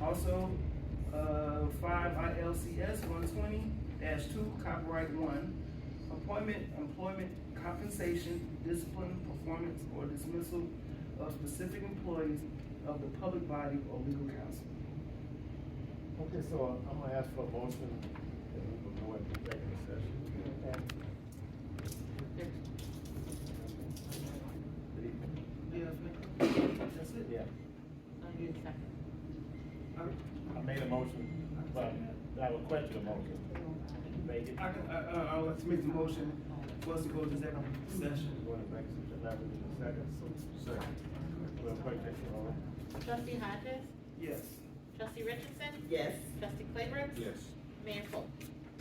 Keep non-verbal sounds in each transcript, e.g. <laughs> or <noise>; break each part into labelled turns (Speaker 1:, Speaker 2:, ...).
Speaker 1: Also, uh, five ILCS one twenty two, copyright one, appointment, employment, compensation, discipline, performance, or dismissal of specific employees of the public body or legal counsel.
Speaker 2: Okay, so I'm gonna ask for a motion that we will go into executive session.
Speaker 1: Yes, ma'am. That's it?
Speaker 2: Yeah,
Speaker 3: I need a second.
Speaker 1: I
Speaker 2: I made a motion, but I would question the motion. Make it,
Speaker 1: I
Speaker 2: go
Speaker 1: can, I, uh, I, I'll let make the motion for us to go to executive session.
Speaker 2: to executive session, that would be the second. Second. We'll break that for
Speaker 3: Trustee Hodges?
Speaker 1: Yes.
Speaker 3: Trustee Richardson?
Speaker 4: Yes.
Speaker 3: Trustee Claybrook?
Speaker 5: Yes.
Speaker 3: Mayor Cole?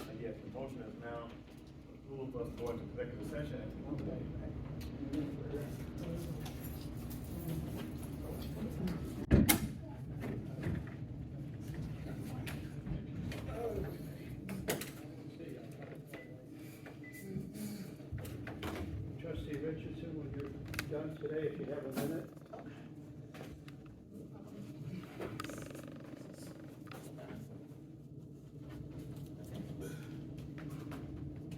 Speaker 2: I guess the motion is now, approve us going to executive session.
Speaker 6: Trustee Richardson, when you're done today, if you have a minute,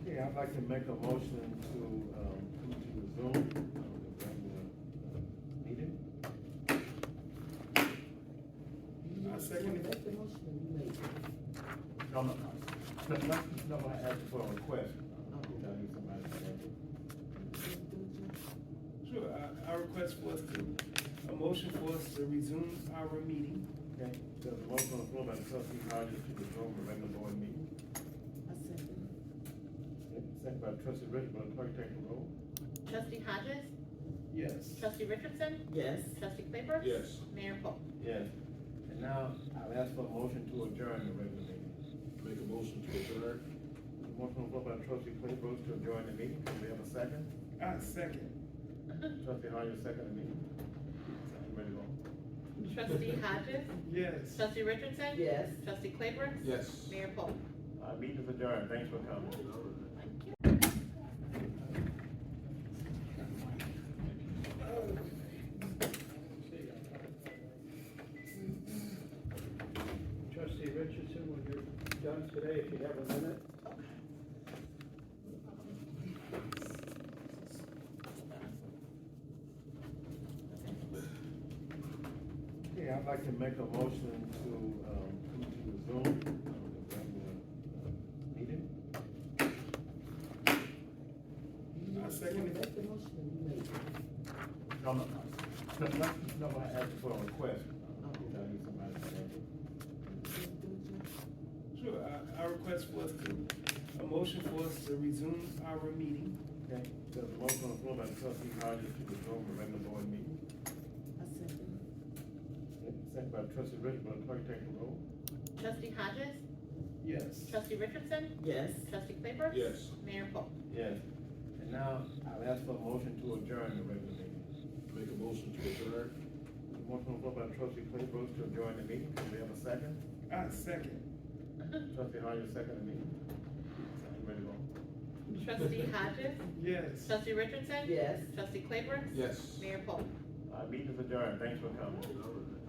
Speaker 2: Yeah, I'd like to make a motion to, um, to resume, um, the regular, uh, meeting.
Speaker 1: I second it.
Speaker 2: No, no, no, no, no, I asked for a request. You know, you somebody said,
Speaker 1: Sure, I, I request for us to, a motion for us to resume our meeting.
Speaker 2: Okay, there's a motion on the floor by the trustee Hodges to resume the regular board meeting. Second by trustee Richard, will the clerk take the roll?
Speaker 3: Trustee Hodges?
Speaker 1: Yes.
Speaker 3: Trustee Richardson?
Speaker 4: Yes.
Speaker 3: Trustee Claybrook?
Speaker 5: Yes.
Speaker 3: Mayor Cole? <laughs>
Speaker 2: Yes. And now, I'll ask for a motion to adjourn the regular meeting.
Speaker 5: Make a motion to adjourn?
Speaker 2: Motion on the floor by trustee Claybrook to adjourn the meeting, can we have a second?
Speaker 1: I second.
Speaker 2: Trustee Hodges, second the meeting. You Ready to go?
Speaker 3: Trustee Hodges?
Speaker 1: Yes.
Speaker 3: Trustee Richardson?
Speaker 4: Yes.
Speaker 3: Trustee Claybrook?
Speaker 5: Yes.
Speaker 3: Mayor Cole?
Speaker 2: Uh, meeting is adjourned, thanks for coming.
Speaker 3: Thank you.
Speaker 6: trustee Richardson, when you're done today, if you have a minute,
Speaker 2: Yeah, I'd like to make a motion to, um, to resume, um, the regular, uh, meeting.
Speaker 1: I second it.
Speaker 2: No, no, no, no, no, no, I asked for a request. You know, you somebody said,
Speaker 1: Sure, I, I request for us to, a motion for us to resume our meeting.
Speaker 2: okay, there's a motion on the floor by trustee Hodges to resume the regular board meeting. Second by trustee Richard, will the clerk take the roll?
Speaker 3: Trustee Hodges?
Speaker 1: Yes.
Speaker 3: Trustee Richardson?
Speaker 4: Yes.
Speaker 3: Trustee Claybrook?
Speaker 5: Yes.
Speaker 3: Mayor Cole?
Speaker 2: Yes. And now, I'll ask for a motion to adjourn the regular meeting.
Speaker 5: Make a motion to adjourn?
Speaker 2: Motion on the floor by trustee Claybrook to adjourn the meeting, can we have a second?
Speaker 1: I second.
Speaker 2: Trustee Hodges, second the meeting. You Ready to go?
Speaker 3: Trustee
Speaker 4: <laughs>
Speaker 3: Hodges?
Speaker 1: Yes.
Speaker 3: Trustee Richardson?
Speaker 4: Yes.
Speaker 3: Trustee Claybrook?
Speaker 5: Yes.
Speaker 3: Mayor Cole?
Speaker 2: Uh, meeting is adjourned, thanks for coming.